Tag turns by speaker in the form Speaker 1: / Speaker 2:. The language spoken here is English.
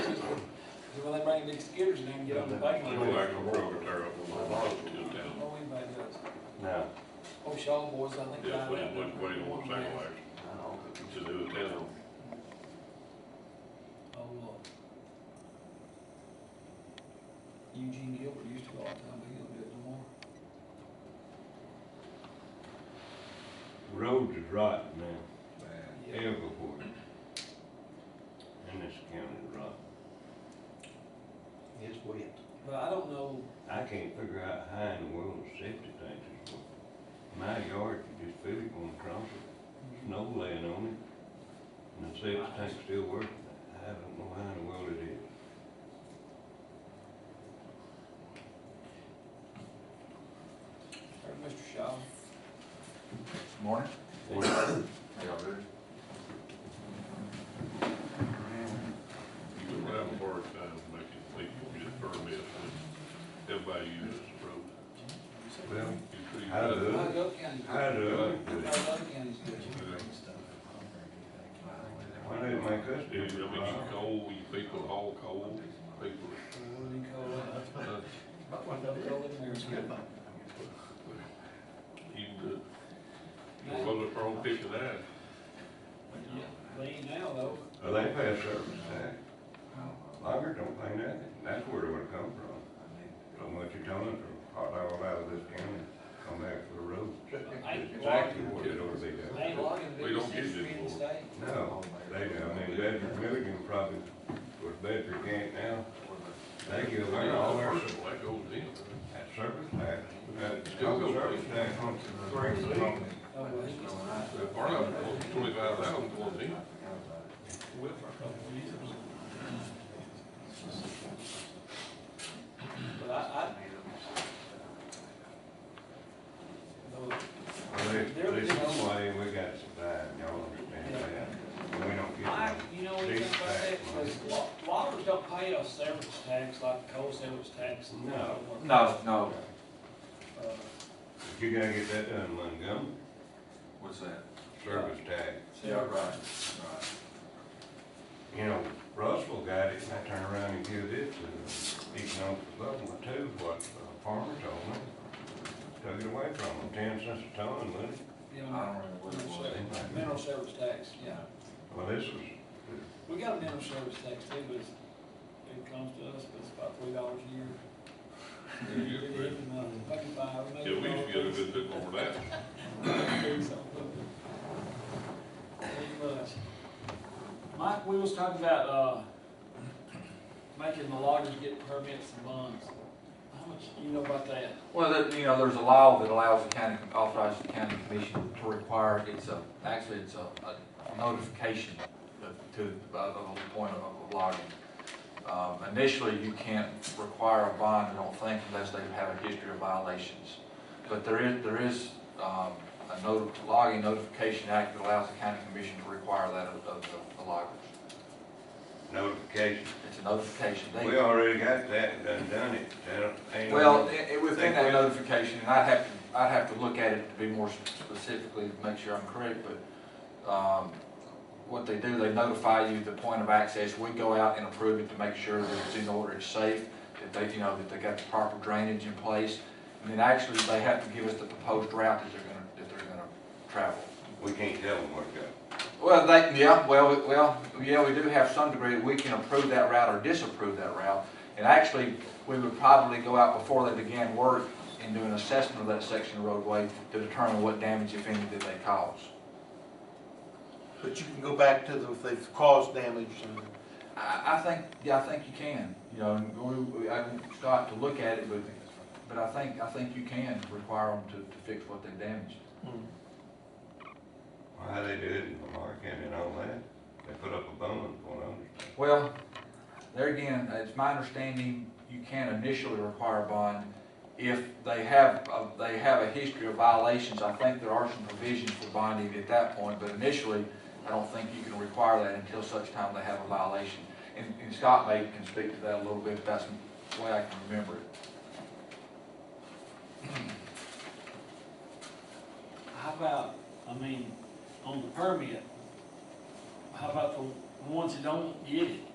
Speaker 1: Till they bring big skidders down and get on the bank.
Speaker 2: They go back on Kroger, tear up the wall, up to town.
Speaker 1: Oh, anybody does.
Speaker 3: No,
Speaker 1: Oh, Shaw boys, I think. died
Speaker 2: Yes, they,
Speaker 1: out
Speaker 2: what,
Speaker 1: there.
Speaker 2: what do you want to say, like,
Speaker 3: I don't think
Speaker 2: to do the town?
Speaker 1: Oh, Lord. Eugene Gilbert used to go all the time, but he don't do it no more.
Speaker 3: roads is rotten now,
Speaker 1: Yeah.
Speaker 3: everywhere. In this county is rotten. It's wet.
Speaker 1: But I don't know,
Speaker 3: I can't figure out how in the world the safety tanks is working. My yard, you just feel it going across it, snow laying on it, and the safety tank's still working. I don't know how in the world it is.
Speaker 1: or Mr. Shaw.
Speaker 4: Morning.
Speaker 3: Morning.
Speaker 4: How y'all doing?
Speaker 2: You would have a hard time making people get permits when everybody uses the road.
Speaker 3: Well,
Speaker 2: You see,
Speaker 3: How
Speaker 2: you
Speaker 3: do
Speaker 2: got-
Speaker 3: it?
Speaker 1: Not Gulf County's good.
Speaker 2: uh,
Speaker 3: how do I do
Speaker 1: Not
Speaker 3: it?
Speaker 1: Gulf County's good.
Speaker 3: Why do it make us
Speaker 2: I
Speaker 3: do
Speaker 2: mean,
Speaker 3: it?
Speaker 2: you coal, you people haul coal, people,
Speaker 1: Wooden coal,
Speaker 2: uh,
Speaker 1: no coal in there is good.
Speaker 2: you, uh, you're going to throw picture that.
Speaker 1: But ain't now though.
Speaker 3: Well, they pay a service tax. Loggers don't pay nothing. That's where it would come from. From what you're telling them, hot dog out of this county, come back for the road. That's Exactly what it ought to be
Speaker 1: They
Speaker 3: done.
Speaker 1: ain't logging the
Speaker 2: We don't
Speaker 1: biggest
Speaker 2: get
Speaker 1: industry
Speaker 2: this
Speaker 1: in the
Speaker 2: board.
Speaker 1: state.
Speaker 3: No, they, I mean, Bedford Milligan probably, was Bedford can't now, they give away all their,
Speaker 2: First of all, That goes in.
Speaker 3: that service tax. That still service tax on
Speaker 1: Oh, well, he gets-
Speaker 2: The part of it goes twenty-five thousand goes in.
Speaker 1: With our couple of years. But I, I,
Speaker 3: Well, there's, there's some way we got to survive, y'all understand that? And We don't get
Speaker 1: I,
Speaker 3: no
Speaker 1: you know, anything about that, because lo- loggers don't pay a service tax like coal service tax. and
Speaker 3: No.
Speaker 4: No, no.
Speaker 1: Uh,
Speaker 3: But You gotta get that done, Montgomery,
Speaker 4: What's that?
Speaker 3: service tax.
Speaker 4: Yeah, right, right.
Speaker 3: You know, Russell got it, and I turned around and give it to the economic development too, what the farmer told me. Took it away from them, ten cents a ton, wouldn't it?
Speaker 1: you
Speaker 4: I
Speaker 1: know,
Speaker 4: don't remember what it
Speaker 1: mineral
Speaker 4: was.
Speaker 1: service- Uh, Mineral service tax, yeah.
Speaker 3: Well, this was,
Speaker 1: We got a mineral service tax too, but it's, it comes to us, but it's about three dollars a year.
Speaker 2: Yeah, you're
Speaker 1: Maybe
Speaker 2: right.
Speaker 1: uh, five,
Speaker 2: Yeah,
Speaker 1: maybe
Speaker 2: we used to get a good bit more of that.
Speaker 1: Pretty much. Mike, we was talking about, uh, making the loggers get permits and bonds. How much do you know about that?
Speaker 4: Well, that, you know, there's a law that allows the county, authorizes the county commission to require, it's a, actually, it's a, a notification of- to, of the whole point of of logging. Um, initially, you can't require a bond, I don't think, unless they have a history of violations. But there is, there is, um, a note, logging notification act that allows the county commission to require that of, of the- the loggers.
Speaker 3: notification.
Speaker 4: It's a notification. They-
Speaker 3: We already got that, and done done it, They don't- ain't. no-
Speaker 4: Well, it, it was in
Speaker 3: They
Speaker 4: that
Speaker 3: quit.
Speaker 4: notification, and I'd have to, I'd have to look at it to be more specifically, to make sure I'm correct, but, um, what they do, they notify you the point of access, we go out and approve it to make sure that it's in order, it's safe, that they, you know, that they got the proper drainage in place, and then actually, they have to give us the proposed route that they're gonna, that they're gonna travel.
Speaker 3: We can't tell them where to go.
Speaker 4: Well, they, yeah, well, we- well, yeah, we do have some degree, that we can approve that route or disapprove that route. And actually, we would probably go out before they began work and do an assessment of that section of roadway to determine what damage, if any, did they cause.
Speaker 5: But you can go back to the, if they've caused damage and.
Speaker 4: I, I think, yeah, I think you can, you know, and we, we, I can start to look at it, but, but I think, I think you can require them to, to fix what they damaged.
Speaker 5: hmm.
Speaker 3: Why they do it in Lamar County and all that, they put up a bond for them.
Speaker 4: Well, there again, it's my understanding you can initially require a bond if they have, uh, they have a history of violations. I think there are some provisions for bonding at that point, but initially, I don't think you can require that until such time they have a violation. And and Scott may can speak to that a little bit, if that's the way I can remember it.
Speaker 1: How about, I mean, on the permit, how about the ones that don't get it?